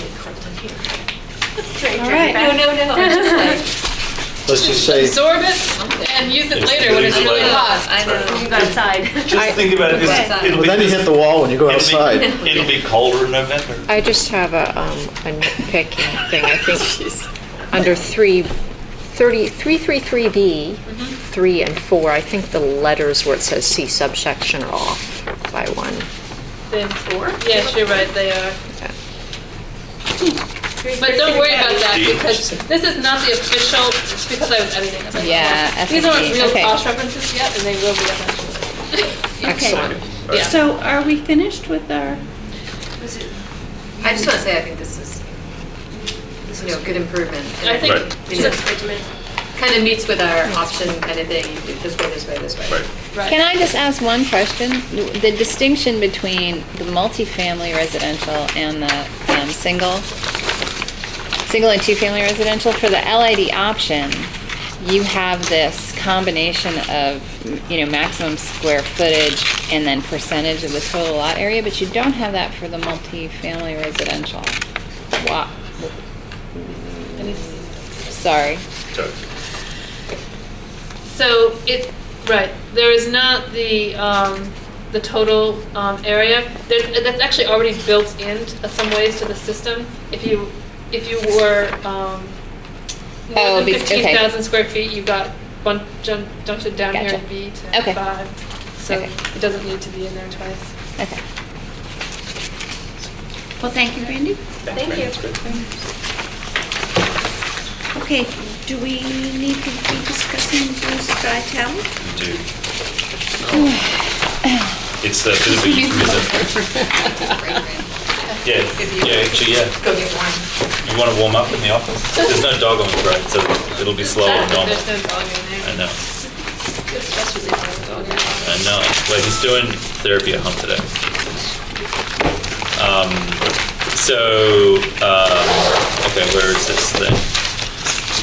cold in here. All right. No, no, no. I'm just like, Let's just say, absorb it and use it Just later when it's leave it really later. hot. I know. You go outside. Just think about it, this- Okay. it'll but be, then you this- hit the wall when you go it'll outside. be, it'll be colder in November. I just have a, um, a nitpicking thing, I think, under three, thirty, three, three, three B, Mm-hmm. three and four, I think the letters where it says C subsection are off by one. Then four? Yes, you're right, they are. But don't worry about that because this is not the official, it's because I was editing. it. Yeah, These aren't FNP, real okay. Bosch references yet and they will be eventually. Excellent. Yeah. So are we finished with our? I just want to say, I think this is, you know, good improvement. I think, Right. You know, kind of meets with our option editing, this way, this way, this way. Right. right. Can I just ask one question? The distinction between the multifamily residential and the um, single, single and two-family residential, for the LID option, you have this combination of, you know, maximum square footage and then percentage of the total lot area, but you don't have that for the multifamily residential. Wow. Sorry. So, So it, right, there is not the, um, the total, um, area. There, that's actually already built in uh, some ways to the system. If you, if you were, um, Oh, more than be- okay. fifteen thousand square feet, you got bun- jun- dumped it down here Gotcha. in B to Okay. five. So Okay. it doesn't need to be in there twice. Okay. Well, thank you, Randy. Thank you. Okay, do we need to be discussing Blue Sky Tower? you do. It's the, it'll be, it's a- yeah, yeah, actually, yeah. Go get one. You want to warm up in the office? There's no dog on the parade, so it'll be slower than normal. There's no dog in there. I know. I know. Well, he's doing therapy at home today. Um, so, um, okay, where is this thing?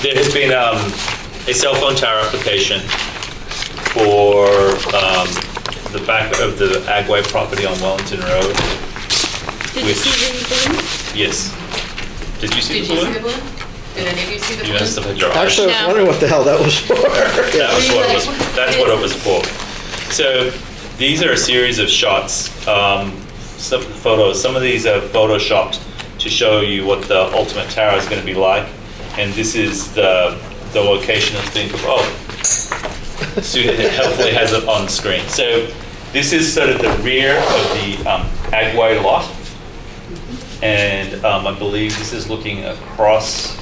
There has been um, a cell phone tower application for um, the back of the Agway property on Wellington Road. Did you Which- see the balloon? Yes. Did you see Did you see the balloon? the balloon? Did any of you see the You must balloon? have had your eyes. Actually, I was wondering what the hell that was for. That was what it was, that's what it was for. So these are a series of shots, um, some photos. Some of these are photoshopped to show you what the ultimate tower is going to be like. And this is the, the location and think of, oh, Sue hopefully has it on screen. So this is sort of the rear of the um, Agway lot. And um, I believe this is looking across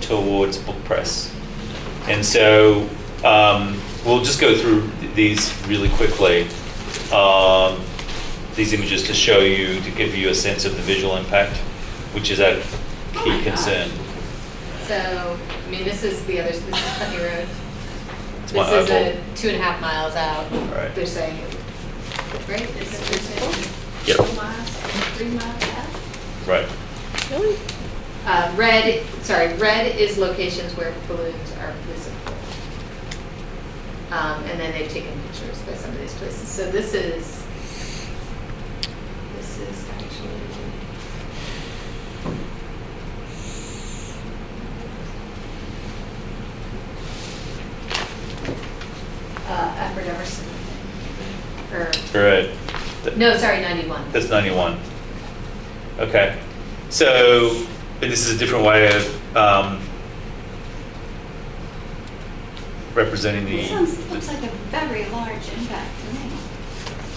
towards Book Press. And so um, we'll just go through th- these really quickly. Um, these images to show you, to give you a sense of the visual impact, which is a key concern. So, I mean, this is the other, this is Putney Road. This my is eyeball. a two and a half miles out. Right. They're saying, right? Is that what they're saying? Yep. Two miles, three miles out? Right. Uh, red, sorry, red is locations where balloons are visible. Um, and then they've taken pictures by some of these places. So this is, this is actually. Uh, Upper Emerson, or, Right. Th- no, sorry, 91. That's 91. Okay. So, but this is a different way of um, representing the. It sounds, looks like a very large impact to me.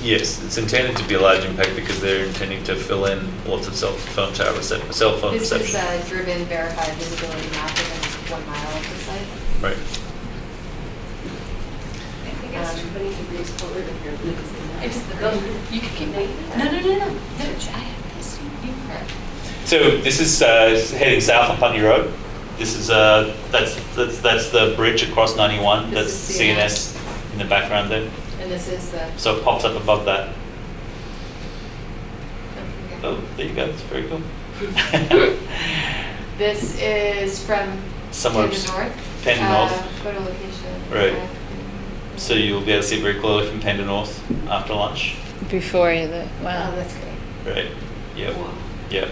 Yes, it's intended to be a large impact because they're intending to fill in lots of cell phone tower, recep- cell phone This is reception. uh, a driven verified visibility map within one mile of the site. Right. I think it's Um, 20 degrees colder than your balloon. You can keep making that. No, no, no, no. No, I have this. So this is uh, heading south on Putney Road. This is, uh, that's, that's, that's the bridge across 91. That's This is CNS in the background there. And this is the. So it pops up above that. Oh, there you go. It's very cool. This is from. Somewhere To the s- north. Panda Uh, North. Photo location. Right. Uh, So you'll be able to see it very clearly from Panda North after lunch. Before the, Oh, wow. that's great. Right. Yep. Yep.